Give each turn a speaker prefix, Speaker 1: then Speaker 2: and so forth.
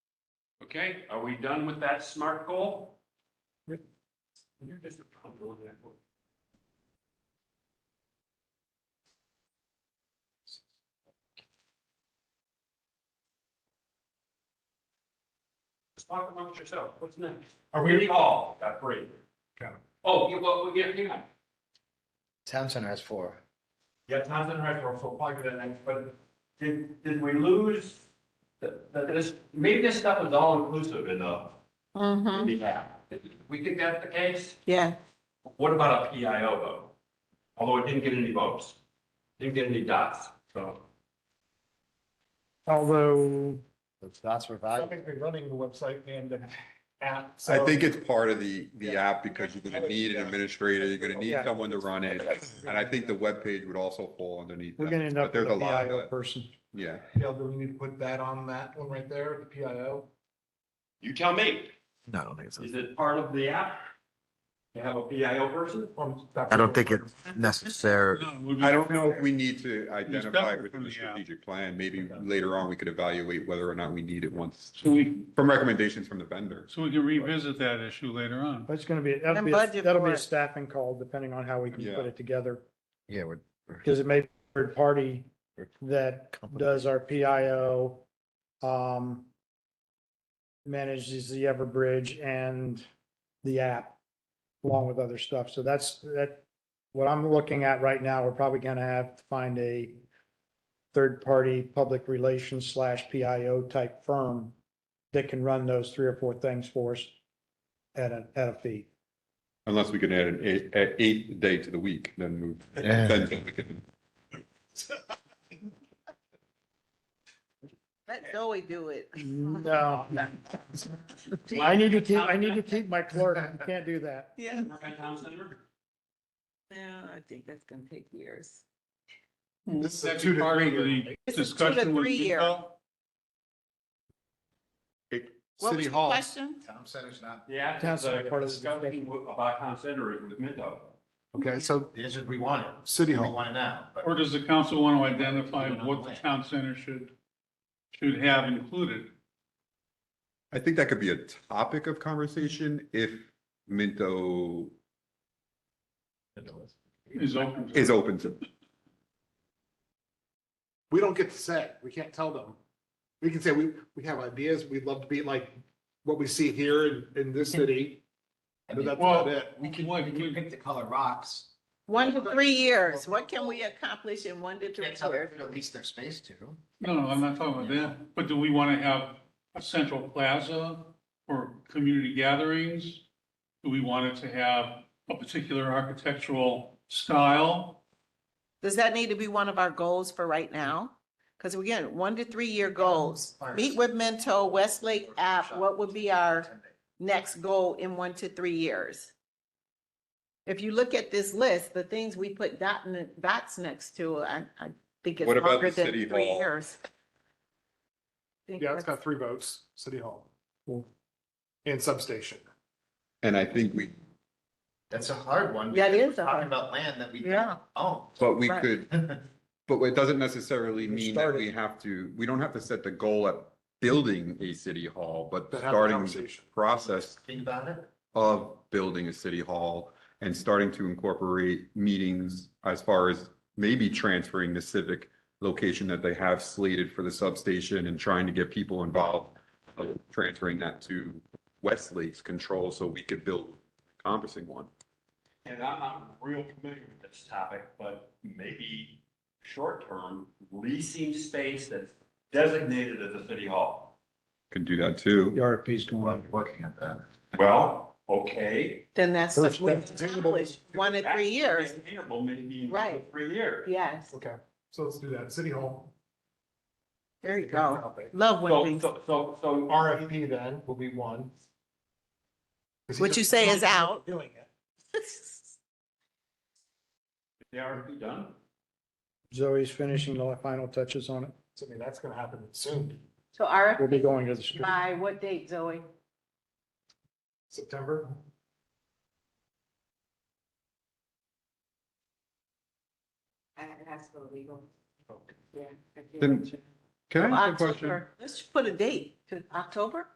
Speaker 1: Okay, are we done with that SMART goal? Just talk amongst yourself, what's next?
Speaker 2: Are
Speaker 1: City
Speaker 2: we,
Speaker 1: Hall, got three.
Speaker 2: Got it.
Speaker 1: Oh, you, well, yeah, hang on.
Speaker 3: Town center has four.
Speaker 1: Yeah, Townsend Retro, so probably that next, but did, did we lose? The, the, this, maybe this stuff is all inclusive enough.
Speaker 4: Mm-hmm,
Speaker 1: Yeah. We think that's the case?
Speaker 4: yeah.
Speaker 1: What about a PIO vote? Although it didn't get any votes, didn't get any dots, so.
Speaker 2: although,
Speaker 3: Those dots were
Speaker 2: I
Speaker 3: valuable.
Speaker 2: think we're running the website and the app.
Speaker 5: I
Speaker 2: so-
Speaker 5: think it's part of the, the
Speaker 2: Yeah.
Speaker 5: app because you're gonna need an administrator, you're gonna need
Speaker 2: Yeah.
Speaker 5: someone to run it. And I think the webpage would also fall underneath that.
Speaker 2: We're gonna end
Speaker 5: But
Speaker 2: up with
Speaker 5: there's
Speaker 2: a
Speaker 5: lot of
Speaker 2: PIO
Speaker 5: that.
Speaker 2: person.
Speaker 5: Yeah.
Speaker 2: Yeah, do we need to put that on that one right there, the PIO?
Speaker 1: You tell me,
Speaker 3: No, I don't think
Speaker 1: is it part of the app? To have a PIO person?
Speaker 3: I don't think it's necessary.
Speaker 5: I don't know if we need to identify
Speaker 6: separate
Speaker 5: it within
Speaker 6: from
Speaker 5: the
Speaker 6: the app.
Speaker 5: strategic plan. Maybe later on, we could evaluate whether or not we need it once,
Speaker 6: So we,
Speaker 5: from recommendations from the vendors.
Speaker 6: so we can revisit that issue later on.
Speaker 2: That's gonna be, that'll
Speaker 4: And
Speaker 2: be,
Speaker 4: budget
Speaker 2: that'll be
Speaker 4: for
Speaker 2: a
Speaker 4: it.
Speaker 2: staffing call depending on how we can
Speaker 5: Yeah.
Speaker 2: put it together.
Speaker 3: Yeah, we're.
Speaker 2: Because it may be a third party that does our PIO, um, manages the Everbridge and the app along with other stuff. So that's, that, what I'm looking at right now, we're probably gonna have to find a third party public relations slash PIO type firm that can run those three or four things for us at a, at a fee.
Speaker 5: Unless we can add an eight- an eighth day to the week, then move.
Speaker 3: Yeah.
Speaker 5: then we can-
Speaker 4: Let Zoe do it. Mm-hmm.
Speaker 2: No. I need to keep, I need to keep my clerk. You can't do that.
Speaker 4: Yeah,
Speaker 1: Work on Town Center?
Speaker 4: yeah, I think that's gonna take years.
Speaker 6: This is a two to three.
Speaker 4: It's a two to
Speaker 6: Discussion with
Speaker 4: three year.
Speaker 6: Vito.
Speaker 4: What was
Speaker 3: City
Speaker 4: the
Speaker 3: Hall.
Speaker 4: question?
Speaker 3: Town center's not.
Speaker 1: Yeah.
Speaker 2: Town Center, part of the
Speaker 1: Discussion about Town Center is with Minto.
Speaker 3: Okay, so. The answer we want it. City Hall. We want it now.
Speaker 6: Or does the council want to identify what the town center should, should have included?
Speaker 5: I think that could be a topic of conversation if Minto
Speaker 6: Is open. to-
Speaker 5: is open to.
Speaker 7: we don't get to say, we can't tell them. We can say, we, we have ideas, we'd love to be like what we see here in, in this city. But that's
Speaker 6: Well,
Speaker 7: about it.
Speaker 6: we can, we can-
Speaker 3: the color rocks.
Speaker 4: One to three years. What can we accomplish in one to three years?
Speaker 3: lease their space to.
Speaker 6: no, no, I'm not talking about that. But do we want to have a central plaza for community gatherings? Do we want it to have a particular architectural style?
Speaker 4: Does that need to be one of our goals for right now? Because again, one to three year goals. Meet with Mento, Oh, Westlake app, what would be our next goal in one to three years? If you look at this list, the things we put dot, n- dots next to, I, I think it's
Speaker 5: What about
Speaker 4: longer
Speaker 5: the
Speaker 4: than
Speaker 5: city
Speaker 4: three
Speaker 5: hall?
Speaker 4: years. Think
Speaker 7: Yeah, it's
Speaker 4: that's-
Speaker 7: got three votes, city hall.
Speaker 2: Cool.
Speaker 7: And substation.
Speaker 5: And I think we,
Speaker 3: That's a hard one.
Speaker 4: That
Speaker 3: because
Speaker 4: is
Speaker 3: we're
Speaker 4: a
Speaker 3: Talking
Speaker 4: hard-
Speaker 3: about land that we
Speaker 4: Yeah.
Speaker 3: don't own.
Speaker 5: but we
Speaker 4: Right.
Speaker 5: could But it doesn't necessarily
Speaker 2: We
Speaker 5: mean that
Speaker 2: started-
Speaker 5: we have to, we don't have to set the goal at building a city hall, but
Speaker 7: But have the
Speaker 5: starting the
Speaker 7: conversation.
Speaker 5: process
Speaker 3: Think about it.
Speaker 5: of building a city hall and starting to incorporate meetings as far as maybe transferring the civic location that they have slated for the substation and trying to get people involved, uh, transferring that to Westlake's control so we could build encompassing one.
Speaker 1: And I'm not real familiar with this topic, but maybe short-term leasing space that's designated as a city hall.
Speaker 5: Can do that too.
Speaker 2: The RFP's going
Speaker 3: Well,
Speaker 2: on.
Speaker 3: we're Working at that.
Speaker 1: Well, okay.
Speaker 4: Then that's
Speaker 2: First,
Speaker 4: what we
Speaker 2: that's attainable.
Speaker 4: accomplish, one to three years.
Speaker 1: Attainable maybe in two to
Speaker 4: Right.
Speaker 1: three years.
Speaker 4: Yes,
Speaker 7: Okay, so let's do that, city hall.
Speaker 4: there you go. Love when
Speaker 1: So,
Speaker 4: things,
Speaker 1: so, so, so
Speaker 7: RFP then will be one. 'Cause he
Speaker 4: What you
Speaker 7: just-
Speaker 4: say is out.
Speaker 7: Doing it.
Speaker 1: They are done?
Speaker 2: Zoe's finishing the final touches on it.
Speaker 7: So I mean, that's gonna happen soon,
Speaker 4: So
Speaker 2: We'll be
Speaker 4: RFP
Speaker 2: going to the street.
Speaker 4: by what date, Zoe?
Speaker 7: September.
Speaker 4: I have to go legal.
Speaker 5: Then- Can I ask a question?
Speaker 4: October, let's put a date to October?